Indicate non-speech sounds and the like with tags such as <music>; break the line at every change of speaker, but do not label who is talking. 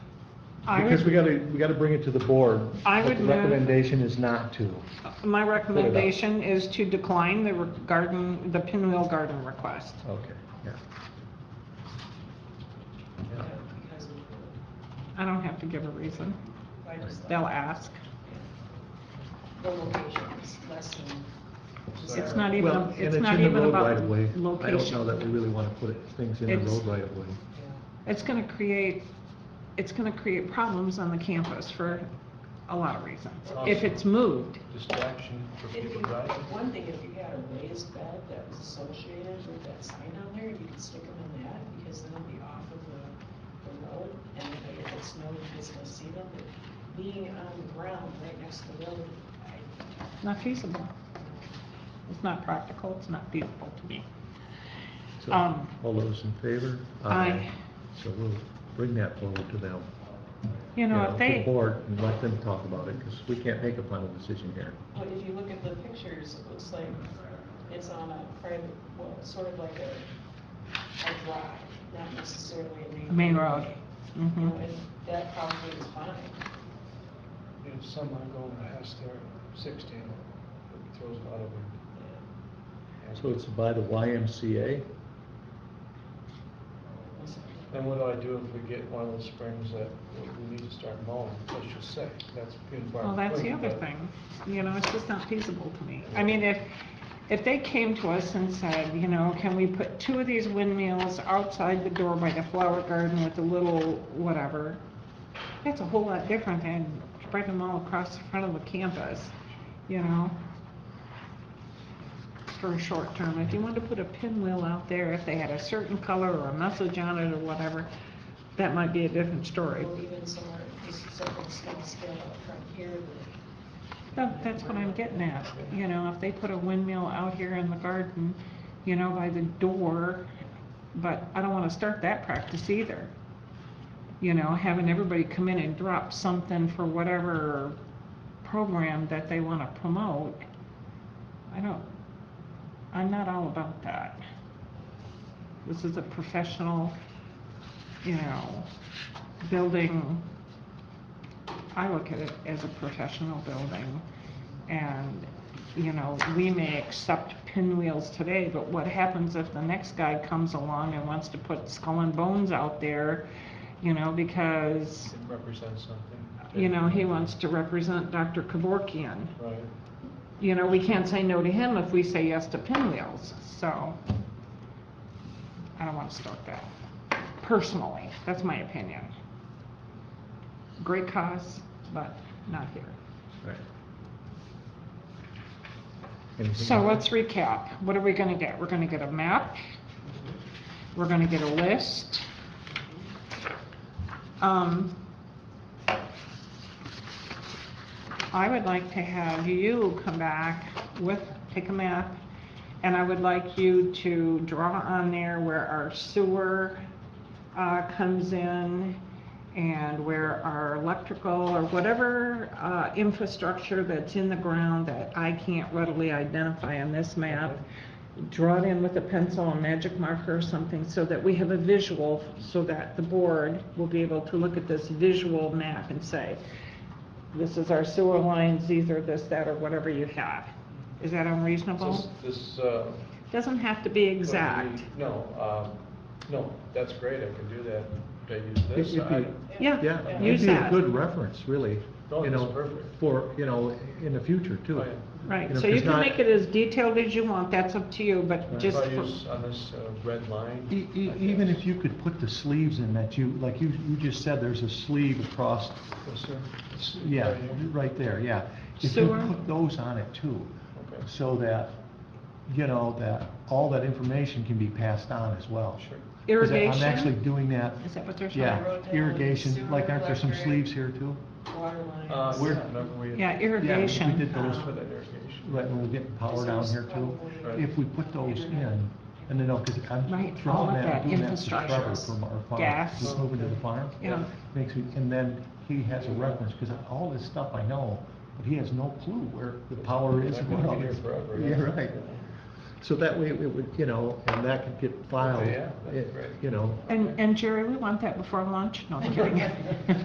I
Because we
would,
gotta, we gotta bring it to the board.
I
but
would
The
move-
recommendation is not to.
my recommendation is to decline the re- garden, the pinwheel garden request.
Okay, yeah. Yeah.
I don't have to give a reason.
I just,
They'll ask.
the location is less than.
It's not even,
Well,
a-
and
it's
in
not
the
even
road
about
right of way. I don't know that
location.
we really wanna put things in the
It's-
road right of way.
It's gonna create, it's gonna create problems on the campus for a lot of reasons. If it's moved,
Distraction for
If you,
people driving.
one thing, if you had a raised bed that was associated with that sign on there, you could stick them in that, because then it'd be off of the, the road, and if it's no, it's gonna see them, but being on the ground right next to the road, I,
not feasible. It's not practical, it's not feasible to me.
So,
Um,
all those in favor?
Aye.
So we'll bring that forward to them.
You know, if
To the
they,
board and let them talk about it, because we can't make a final decision here.
but if you look at the pictures, it looks like it's on a private, well, sort of like a, a drive, not necessarily a main.
main road.
You know,
Mhm.
and that probably is fine.
If someone going to has their sixteen, it throws a lot of them.
So it's by the YMCA?
Then what do I do if we get one of those springs that we need to start mowing, let's just say, that's being far.
Well, that's the
away,
other
but-
thing, you know, it's just not feasible to me. I mean, if, if they came to us and said, you know, can we put two of these windmills outside the door by the flower garden with a little whatever? That's a whole lot different than spreading them all across the front of the campus, you know? For a short term, if you wanted to put a pinwheel out there, if they had a certain color or a message on it or whatever, that might be a different story.
Or even somewhere, just something's gonna scale up from here, but
That, that's what I'm getting at, you know, if they put a windmill out here in the garden, you know, by the door, but I don't wanna start that practice either. You know, having everybody come in and drop something for whatever program that they wanna promote. I don't, I'm not all about that. This is a professional, you know, building I look at it as a professional building, and, you know, we may accept pinwheels today, but what happens if the next guy comes along and wants to put skull and bones out there, you know, because,
It represents something.
you know, he wants to represent Dr. Kevorkian.
Right,
You know, we can't say no to him if we say yes to pinwheels, so I don't want to start that, personally, that's my opinion. Great cause, but not here.
Right. Anything
So
else?
let's recap. What are we gonna get? We're gonna get a map. We're gonna get a list. Um, I would like to have you come back with, take a map, and I would like you to draw on there where our sewer, uh, comes in and where our electrical or whatever, uh, infrastructure that's in the ground that I can't readily identify on this map, draw it in with a pencil and magic marker or something so that we have a visual, so that the board will be able to look at this visual map and say, this is our sewer lines, these are this, that, or whatever you have. Is that
this,
unreasonable?
this, uh. what
Doesn't have to be
do we-
exact.
No, um, no, that's great, I can do that, I use
It-
this,
it'd be-
I,
Yeah,
Yeah,
Yeah.
it'd
use
be a
that.
good reference, really,
Oh,
you
that's
know,
perfect.
for, you know, in the future too.
Oh, yeah.
Right,
You know,
so you
'cause
can
not-
make it as detailed as you want, that's up to you, but
Right.
just,
if I
for-
use on this, uh, red line.
E- e-
I
Even
guess.
if you could put the sleeves in that you, like you, you just said, there's a sleeve across,
Yes, sir.
yeah,
uh, Right here.
right there, yeah. If you
Sewer.
put those on it too,
Okay,
so that, you know, that all that information can be passed on as well.
sure.
'Cause I- I'm actually
irrigation?
doing that,
Is that what they're saying?
yeah,
Road down,
irrigation,
sewer,
like aren't there some
electric.
sleeves here too?
Water lines.
Uh,
Where-
remember we.
Yeah,
Yeah, we
irrigation.
did those
For
for
that irrigation.
Right, when we're getting power down here too, if we put those in, and then, because
Right,
I'm
all of
throwing
that
that, doing that to
infrastructure.
Trevor from our farm.
Gas.
Just moving to the farm.
Yeah.
Makes me, and then he has a reference, because all this stuff I know, but he has no clue where the power is.
That
and
could
what all
be
this-
here forever,
<laughs>
yeah.
Yeah, right. So that way, it would, you know, and that could get filed,
Okay, yeah, that's
it-
great.
you know,
And, and Jerry, we want that before lunch? No, I'm kidding.